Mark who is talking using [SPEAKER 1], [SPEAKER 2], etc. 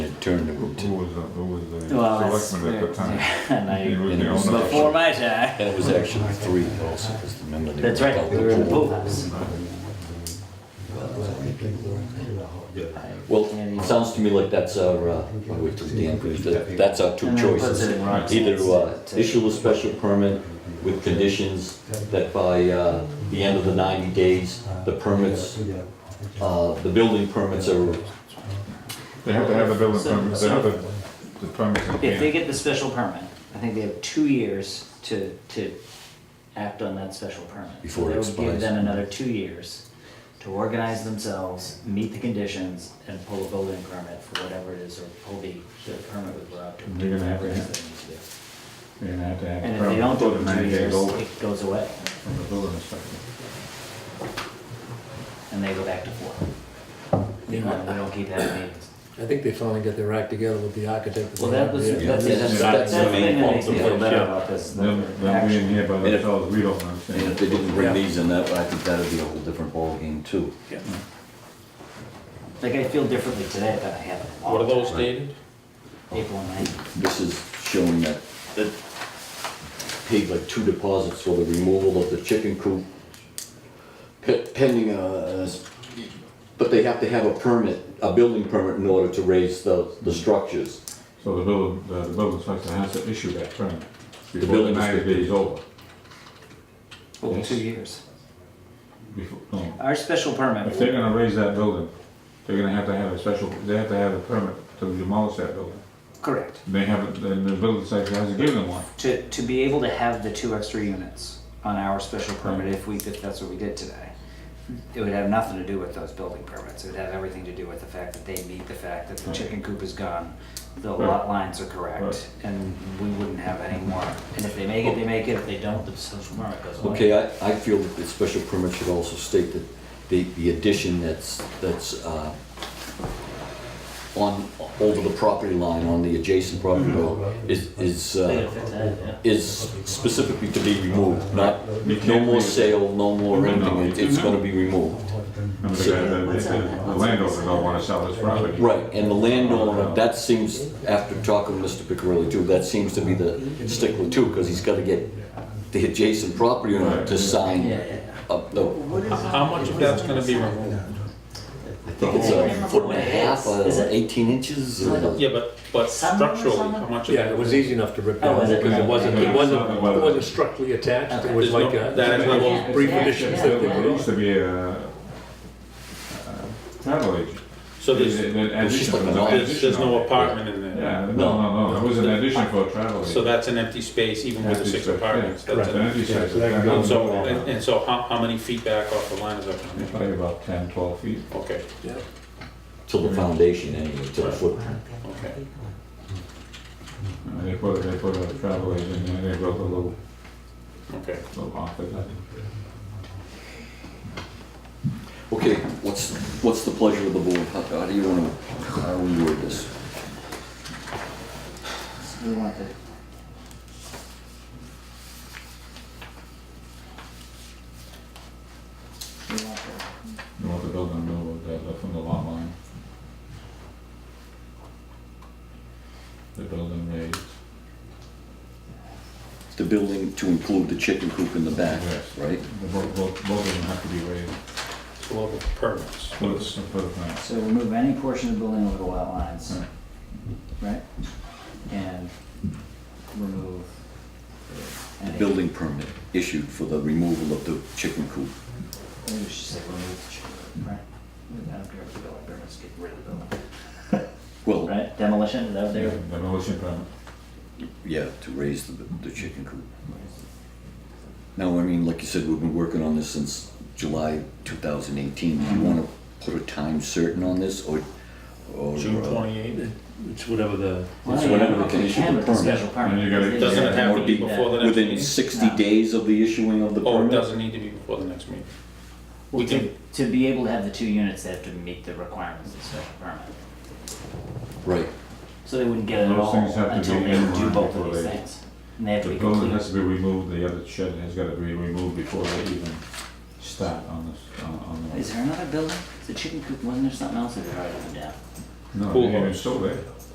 [SPEAKER 1] turned
[SPEAKER 2] Who
[SPEAKER 1] it.
[SPEAKER 2] who was, the- who was
[SPEAKER 3] Well,
[SPEAKER 2] the
[SPEAKER 3] that's
[SPEAKER 2] selectman at the time?
[SPEAKER 3] and I-
[SPEAKER 2] He was
[SPEAKER 1] And
[SPEAKER 2] the
[SPEAKER 1] it was
[SPEAKER 2] owner.
[SPEAKER 1] not-
[SPEAKER 3] before my time.
[SPEAKER 1] And it was actually three also, because the member.
[SPEAKER 3] That's right, we were in the pool house.
[SPEAKER 1] Well, it sounds to me like that's our, uh, by the way, to Dan, that- that's our two
[SPEAKER 3] And then it puts
[SPEAKER 1] choices.
[SPEAKER 3] it in Roxanne's
[SPEAKER 1] Either uh,
[SPEAKER 3] to-
[SPEAKER 1] issue a special permit with conditions that by uh, the end of the 90 days, the permits, uh, the building permits are,
[SPEAKER 2] They have to have the building
[SPEAKER 3] So-
[SPEAKER 2] permit, they have the, the permit. in
[SPEAKER 3] If they
[SPEAKER 2] hand.
[SPEAKER 3] get the special permit, I think they have two years to, to act on that special permit.
[SPEAKER 1] Before it
[SPEAKER 3] That would Give
[SPEAKER 1] expires.
[SPEAKER 3] them another two years to organize themselves, meet the conditions, and pull a building permit for whatever it is, or pull the, the permit with Rob to
[SPEAKER 2] They're
[SPEAKER 3] do
[SPEAKER 2] gonna have
[SPEAKER 3] whatever it
[SPEAKER 2] to-
[SPEAKER 3] is they need to do.
[SPEAKER 2] They're gonna have to have.
[SPEAKER 3] And
[SPEAKER 2] the
[SPEAKER 3] if they don't
[SPEAKER 2] permit
[SPEAKER 3] do
[SPEAKER 2] before
[SPEAKER 3] it in
[SPEAKER 2] the
[SPEAKER 3] two
[SPEAKER 2] 90 days
[SPEAKER 3] years,
[SPEAKER 2] over
[SPEAKER 3] it goes away,
[SPEAKER 2] From the building inspector.
[SPEAKER 3] and they go back to four. You know, we don't keep having meetings.
[SPEAKER 4] I think they finally got their act together with the architect.
[SPEAKER 3] Well, that was,
[SPEAKER 4] Yeah.
[SPEAKER 3] that's, that's, that's
[SPEAKER 1] that's
[SPEAKER 3] the
[SPEAKER 1] the main
[SPEAKER 3] thing that makes me
[SPEAKER 1] fault
[SPEAKER 3] feel
[SPEAKER 1] of
[SPEAKER 3] better about this. the
[SPEAKER 2] Then, then we
[SPEAKER 3] action.
[SPEAKER 2] in here by
[SPEAKER 1] Yeah.
[SPEAKER 2] ourselves, we
[SPEAKER 1] and
[SPEAKER 2] don't
[SPEAKER 1] if
[SPEAKER 2] understand.
[SPEAKER 1] they didn't bring these in, that, I think that'd be a whole different ballgame too.
[SPEAKER 3] Like, I feel differently today than I have. in a long
[SPEAKER 5] What are those
[SPEAKER 3] time.
[SPEAKER 5] dated?
[SPEAKER 3] April and May.
[SPEAKER 1] This is showing that, that paid like two deposits for the removal of the chicken coop. pe- Pending, uh, s- but they have to have a permit, a building permit in order to raise the, the structures.
[SPEAKER 2] So the building, the the building inspector has to issue that permit before the
[SPEAKER 1] building
[SPEAKER 2] ninety
[SPEAKER 1] inspector.
[SPEAKER 2] days over.
[SPEAKER 3] Well,
[SPEAKER 2] Yes.
[SPEAKER 3] two years.
[SPEAKER 2] Before, no.
[SPEAKER 3] Our special
[SPEAKER 2] If they're
[SPEAKER 3] permit,
[SPEAKER 2] gonna raise that building, they're gonna have to have a special, they have to have a permit to demolish that building.
[SPEAKER 3] correct,
[SPEAKER 2] They haven't, then the building inspector hasn't given them one.
[SPEAKER 3] to, to be able to have the two extra units on our special permit, if we, if that's what we did today, it would have nothing to do with those building permits, it would have everything to do with the fact that they meet the fact that the chicken coop is gone, the lot lines are correct,
[SPEAKER 2] Right.
[SPEAKER 3] and we wouldn't have any more, and if they make it, they make it, if they don't, the special permit goes away.
[SPEAKER 1] Okay, I, I feel that the special permit should also state that the, the addition that's, that's, uh, on, over the property line, on the adjacent property road, is, is,
[SPEAKER 3] They gotta
[SPEAKER 1] uh,
[SPEAKER 3] fix that, yeah.
[SPEAKER 1] is specifically to be removed, not, no
[SPEAKER 2] can't
[SPEAKER 1] more
[SPEAKER 2] leave.
[SPEAKER 1] sale, no more
[SPEAKER 2] No, no.
[SPEAKER 1] renting, it- it's gonna be removed.
[SPEAKER 2] And The guy- the- the- the landowner don't wanna sell his property.
[SPEAKER 1] Right, and the landowner, that seems, after talking to Mr. Picarelli too, that seems to be the stickler too, because he's gotta get the adjacent property owner to sign
[SPEAKER 3] Yeah, yeah, yeah.
[SPEAKER 1] up the,
[SPEAKER 5] How- How much of that's gonna be removed?
[SPEAKER 1] I think it's a foot and a half, uh, eighteen inches. or-
[SPEAKER 5] Yeah, but, but
[SPEAKER 3] Some-
[SPEAKER 5] structurally,
[SPEAKER 3] some-
[SPEAKER 5] how much of
[SPEAKER 4] Yeah,
[SPEAKER 5] that?
[SPEAKER 4] it was easy enough to rip
[SPEAKER 3] Oh,
[SPEAKER 4] down
[SPEAKER 3] was it?
[SPEAKER 4] because it wasn't, it wasn't, it wasn't structurally attached. It was
[SPEAKER 5] There's no-
[SPEAKER 4] like a,
[SPEAKER 5] that is one
[SPEAKER 4] those
[SPEAKER 5] of those-
[SPEAKER 4] brief
[SPEAKER 3] Yeah,
[SPEAKER 4] additions
[SPEAKER 3] yeah,
[SPEAKER 4] that they
[SPEAKER 3] yeah.
[SPEAKER 4] put
[SPEAKER 2] There
[SPEAKER 4] on.
[SPEAKER 2] used to be a uh, travel agent.
[SPEAKER 5] So there's,
[SPEAKER 1] It's just like a
[SPEAKER 5] there's, there's no apartment in there?
[SPEAKER 2] Yeah, no, no, no, it was an addition for a travel
[SPEAKER 5] So
[SPEAKER 2] agent.
[SPEAKER 5] that's an empty space even with the six apartments?
[SPEAKER 2] Yeah,
[SPEAKER 5] that's
[SPEAKER 2] An
[SPEAKER 5] an-
[SPEAKER 2] empty
[SPEAKER 4] Yeah,
[SPEAKER 2] space.
[SPEAKER 4] so that can go
[SPEAKER 5] And so, and and so how, how many feet back off the line is that? gonna be?
[SPEAKER 2] Probably about 10, 12 feet.
[SPEAKER 5] Okay,
[SPEAKER 1] Till the foundation anyway, till the footprint.
[SPEAKER 5] okay.
[SPEAKER 2] And they put, they put a travel agent in, they built a little,
[SPEAKER 5] Okay.
[SPEAKER 2] little office.
[SPEAKER 1] Okay, what's, what's the pleasure of the board? How, how do you wanna, how do we word this?
[SPEAKER 3] So we want the we want the
[SPEAKER 2] You want the building in the middle of that, from the lot line. The building raised
[SPEAKER 1] The building to include the chicken coop in the back,
[SPEAKER 2] Yes.
[SPEAKER 1] right?
[SPEAKER 2] The both, both, both of them have to be raised,
[SPEAKER 5] So what about permits?
[SPEAKER 2] for the, for the plant.
[SPEAKER 3] So remove any portion of the building over the lot lines, right? And remove
[SPEAKER 1] The
[SPEAKER 3] any,
[SPEAKER 1] building permit issued for the removal of the chicken coop.
[SPEAKER 3] maybe we should say remove the chimney, right? I don't care if the building permits, get rid of the building.
[SPEAKER 1] Well,
[SPEAKER 3] Right, demolition, is that what they
[SPEAKER 2] Yeah,
[SPEAKER 3] were?
[SPEAKER 2] Demolition permit.
[SPEAKER 1] yeah, to raise the, the chicken coop. Now, I mean, like you said, we've been working on this since July 2018. Do you wanna put a time certain on this or? or,
[SPEAKER 5] June
[SPEAKER 1] uh,
[SPEAKER 5] twenty-eighth?
[SPEAKER 6] It's whatever the,
[SPEAKER 3] Well,
[SPEAKER 1] It's
[SPEAKER 3] yeah,
[SPEAKER 1] whatever
[SPEAKER 3] but
[SPEAKER 1] can
[SPEAKER 3] they
[SPEAKER 1] issue
[SPEAKER 3] can
[SPEAKER 1] the
[SPEAKER 3] with the
[SPEAKER 1] permit.
[SPEAKER 3] special permit.
[SPEAKER 2] And you gotta-
[SPEAKER 3] They
[SPEAKER 5] Doesn't
[SPEAKER 3] just
[SPEAKER 5] it have to be
[SPEAKER 3] do that.
[SPEAKER 5] before the next
[SPEAKER 1] Within
[SPEAKER 5] meeting?
[SPEAKER 1] 60
[SPEAKER 3] No.
[SPEAKER 1] days of the issuing of the
[SPEAKER 5] Oh, it
[SPEAKER 1] permit?
[SPEAKER 5] doesn't need to be before the next meeting? We
[SPEAKER 3] Well, to,
[SPEAKER 5] can,
[SPEAKER 3] to be able to have the two units, they have to meet the requirements of the special permit.
[SPEAKER 1] Right.
[SPEAKER 3] So they wouldn't get it at
[SPEAKER 2] Those
[SPEAKER 3] all
[SPEAKER 2] things have to
[SPEAKER 3] until
[SPEAKER 2] be
[SPEAKER 3] they
[SPEAKER 2] in
[SPEAKER 3] do
[SPEAKER 2] line
[SPEAKER 3] both of
[SPEAKER 2] before
[SPEAKER 3] these
[SPEAKER 2] they-
[SPEAKER 3] things. And they have to
[SPEAKER 2] The
[SPEAKER 3] be
[SPEAKER 2] building
[SPEAKER 3] complete.
[SPEAKER 2] has to be removed, the other shed has gotta be removed before they even start on this, on, on the.
[SPEAKER 3] Is there another building? Is the chicken coop, wasn't there something else that they already went down?
[SPEAKER 2] No,
[SPEAKER 5] Pool
[SPEAKER 2] they're
[SPEAKER 5] house.
[SPEAKER 2] still there.